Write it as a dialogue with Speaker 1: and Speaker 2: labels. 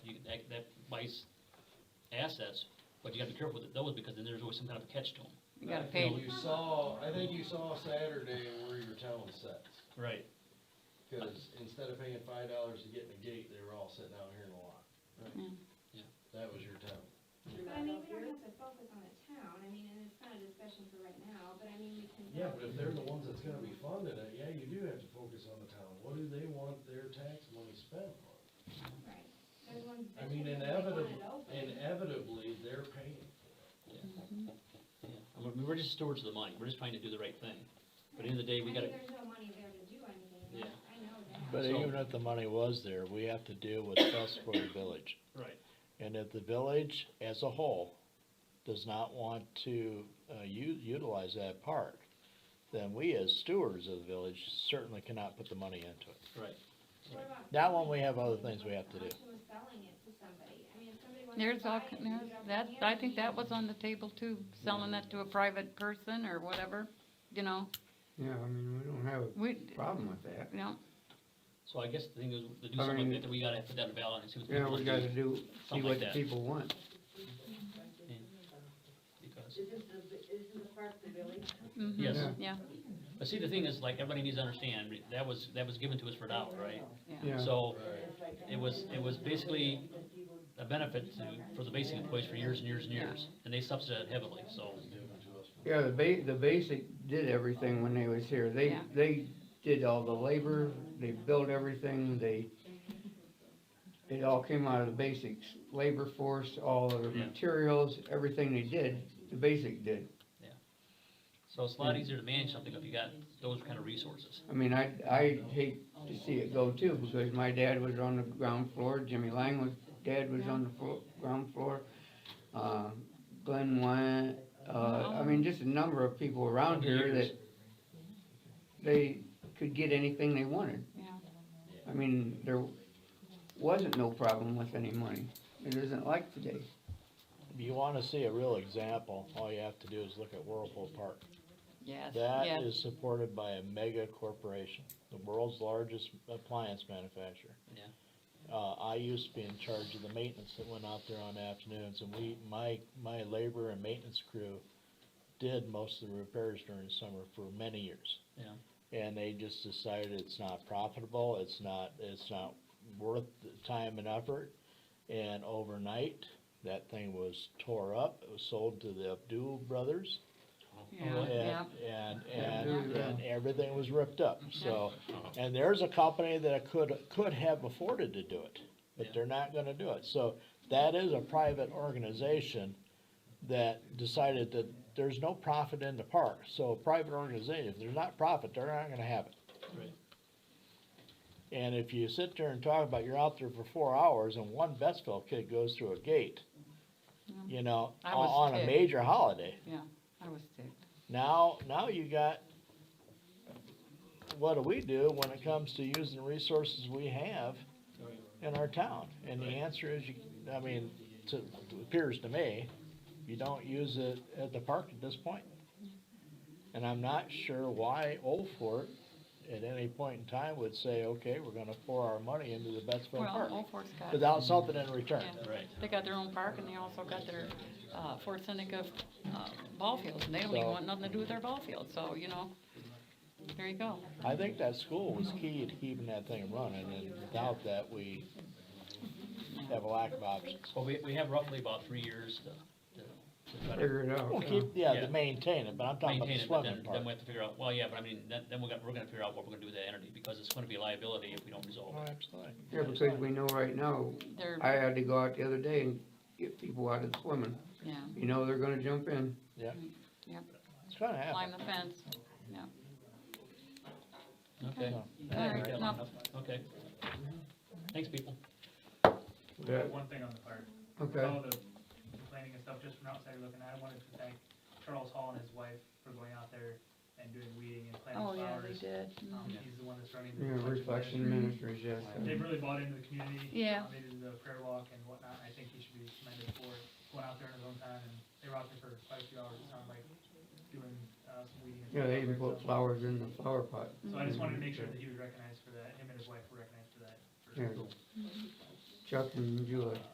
Speaker 1: price assets, but you gotta be careful with those, because then there's always some kind of a catch to them.
Speaker 2: You gotta
Speaker 3: I
Speaker 2: pay.
Speaker 3: think You saw, I think you saw Saturday where your town was set,
Speaker 1: Right.
Speaker 3: cause instead of paying five dollars to get in the gate, they were all sitting out here in the lot.
Speaker 1: Yeah.
Speaker 2: Yeah.
Speaker 3: That was your town.
Speaker 4: But I mean, we don't have to focus on the town, I mean, and it's not a discussion for right now, but I mean, we can.
Speaker 3: Yeah, but if they're the ones that's gonna be funding it, yeah, you do have to focus on the town, what do they want their tax money spent on?
Speaker 4: Right, they're the ones.
Speaker 3: I mean,
Speaker 4: they want
Speaker 3: inevitably,
Speaker 4: it open.
Speaker 3: inevitably, they're paying.
Speaker 1: Yeah, I mean, we're just stewards of the money, we're just trying to do the right thing, but at the end of the day, we
Speaker 4: I mean,
Speaker 1: gotta,
Speaker 4: There's no money there to do anything,
Speaker 1: Yeah.
Speaker 4: I know that.
Speaker 5: But
Speaker 1: So-
Speaker 5: even if the money was there, we have to deal with trust for the village.
Speaker 1: right,
Speaker 5: And if the village as a whole does not want to, uh, u- utilize that park, then we as stewards of the village certainly cannot put the money into it.
Speaker 1: right.
Speaker 4: What about
Speaker 5: That one,
Speaker 4: selling
Speaker 5: we have
Speaker 4: it?
Speaker 5: other things we have to do.
Speaker 4: What's the option of selling it to somebody, I mean, if somebody wants to
Speaker 2: There's all,
Speaker 4: buy it,
Speaker 2: ki-
Speaker 4: you
Speaker 2: there's,
Speaker 4: don't
Speaker 2: that,
Speaker 4: hand
Speaker 2: I
Speaker 4: it
Speaker 2: think
Speaker 4: to
Speaker 2: that
Speaker 4: them.
Speaker 2: was on the table too, selling that to a private person or whatever, you know,
Speaker 6: Yeah, I mean, we don't have
Speaker 2: we,
Speaker 6: a problem with that.
Speaker 2: you know,
Speaker 1: So I guess the thing is, to do
Speaker 6: I
Speaker 1: something
Speaker 6: mean-
Speaker 1: like that, we gotta put that in balance and see what
Speaker 6: Yeah,
Speaker 1: people
Speaker 6: we
Speaker 1: do.
Speaker 6: gotta do, see
Speaker 1: Something like
Speaker 6: what the
Speaker 1: that.
Speaker 6: people want.
Speaker 1: Because,
Speaker 7: Isn't the, isn't the park the village?
Speaker 2: mhm,
Speaker 1: Yes.
Speaker 6: Yeah.
Speaker 2: yeah,
Speaker 1: but see, the thing is, like, everybody needs to understand, that was, that was given to us for a dollar, right?
Speaker 2: yeah.
Speaker 6: Yeah.
Speaker 1: So,
Speaker 3: Right.
Speaker 1: it was, it was basically a benefit to, for the basic employees for years and years and years, and they subsidized it heavily, so.
Speaker 6: Yeah, the ba- the basic did everything when they was here. They,
Speaker 2: Yeah.
Speaker 6: they did all the labor, they built everything, they, it all came out of the basics, labor force, all of the
Speaker 1: Yeah.
Speaker 6: materials, everything they did, the basic did.
Speaker 1: So it's a
Speaker 6: Hmm.
Speaker 1: lot easier to manage something if you got those kind of resources.
Speaker 6: I mean, I, I hate to see it go too, because my dad was on the ground floor, Jimmy Lang was, dad was on the floor, ground floor. Uh, Glenn Wyatt, uh, I mean, just a number of people around here that they could get anything they wanted.
Speaker 2: Yeah.
Speaker 6: I mean, there wasn't no problem with any money. It isn't like today.
Speaker 5: If you wanna see a real example, all you have to do is look at Whirlpool Park.
Speaker 2: Yes, yes.
Speaker 5: That is supported by a mega corporation, the world's largest appliance manufacturer.
Speaker 1: Yeah.
Speaker 5: Uh, I used to be in charge of the maintenance that went out there on afternoons, and we, my, my labor and maintenance crew did most of the repairs during the summer for many years.
Speaker 1: Yeah.
Speaker 5: And they just decided it's not profitable, it's not, it's not worth the time and effort. And overnight, that thing was tore up, it was sold to the Abdul Brothers.
Speaker 2: Yeah, yeah.
Speaker 5: And, and,
Speaker 6: Yeah,
Speaker 5: and,
Speaker 6: yeah.
Speaker 5: and everything was ripped up,
Speaker 2: Mm-hmm.
Speaker 5: so,
Speaker 1: Oh.
Speaker 5: and there's a company that could, could have afforded to do it, but
Speaker 1: Yeah.
Speaker 5: they're not gonna do it, so that is a private organization that decided that there's no profit in the park, so a private organization, if there's not profit, they're not gonna have it.
Speaker 1: Right.
Speaker 5: And if you sit there and talk about you're out there for four hours and one Betsville kid goes through a gate, you know,
Speaker 2: Mm-hmm. I was
Speaker 5: on a
Speaker 2: ticked.
Speaker 5: major holiday,
Speaker 2: I was ticked.
Speaker 5: now, now you got, what do we do when it comes to using the resources we have in our town? And the answer is, you, I mean, to, appears to me, you don't use it at the park at this point. And I'm not sure why Old Fort at any point in time would say, okay, we're gonna pour our money into the Betsville
Speaker 2: Well,
Speaker 5: Park
Speaker 2: Old Fort's got,
Speaker 5: without something in return.
Speaker 2: yeah.
Speaker 1: Right.
Speaker 2: they got their own park and they also got their, uh, Fort Seneca, uh, ball fields, and they don't even
Speaker 5: So-
Speaker 2: want nothing to do with their ball field, so, you know, there you go.
Speaker 5: I think that school was key to keeping that thing running, and without that, we have a lack of options.
Speaker 1: Well, we, we have roughly about three years to, to, to try to
Speaker 6: Figure it out.
Speaker 5: We'll
Speaker 6: yeah.
Speaker 5: keep, yeah,
Speaker 1: Yeah.
Speaker 5: to maintain it, but I'm talking about
Speaker 1: maintain
Speaker 5: the
Speaker 1: it, but then,
Speaker 5: swimming
Speaker 1: then
Speaker 5: part.
Speaker 1: we have to figure out, well, yeah, but I mean, then, then we're gonna, we're gonna figure out what we're gonna do with that entity, because it's gonna be a liability if we don't resolve
Speaker 5: Oh,
Speaker 1: it.
Speaker 5: absolutely.
Speaker 6: Yeah, because we know right now,
Speaker 2: They're,
Speaker 6: I had to go out the other day and get people out of the swimming.
Speaker 2: yeah,
Speaker 6: You know, they're gonna jump in.
Speaker 5: It's gonna
Speaker 2: climb
Speaker 5: happen.
Speaker 2: the fence.
Speaker 1: Okay.
Speaker 5: So,
Speaker 2: All right, no,
Speaker 1: Okay. Thanks, people.
Speaker 6: Yeah.
Speaker 8: One thing on the park,
Speaker 6: Okay.
Speaker 8: all the complaining and stuff, just from outside looking, I wanted to thank Charles Hall and his wife for going out there and doing weeding and planting
Speaker 2: oh, yeah,
Speaker 8: flowers.
Speaker 2: they did. Mm-hmm.
Speaker 8: Um,
Speaker 1: Yeah.
Speaker 8: he's the one that's running the.
Speaker 6: Yeah,
Speaker 8: reflection
Speaker 6: Reflection
Speaker 8: ministry.
Speaker 6: Ministries, yes.
Speaker 8: They've really bought into the community.
Speaker 2: Yeah.
Speaker 8: uh, They did the prayer walk and whatnot, I think he should be commended for going out there in his own time, and they were out there for quite a few hours, it sounded like, doing, uh, some weeding. and
Speaker 6: Yeah, they
Speaker 8: stuff
Speaker 6: even
Speaker 8: like
Speaker 6: put
Speaker 8: that.
Speaker 6: flowers in the flower pot.
Speaker 8: So I just wanted to make sure that he was recognized for that, him and his wife were recognized for that. for
Speaker 6: Yeah. Chuck and Julie.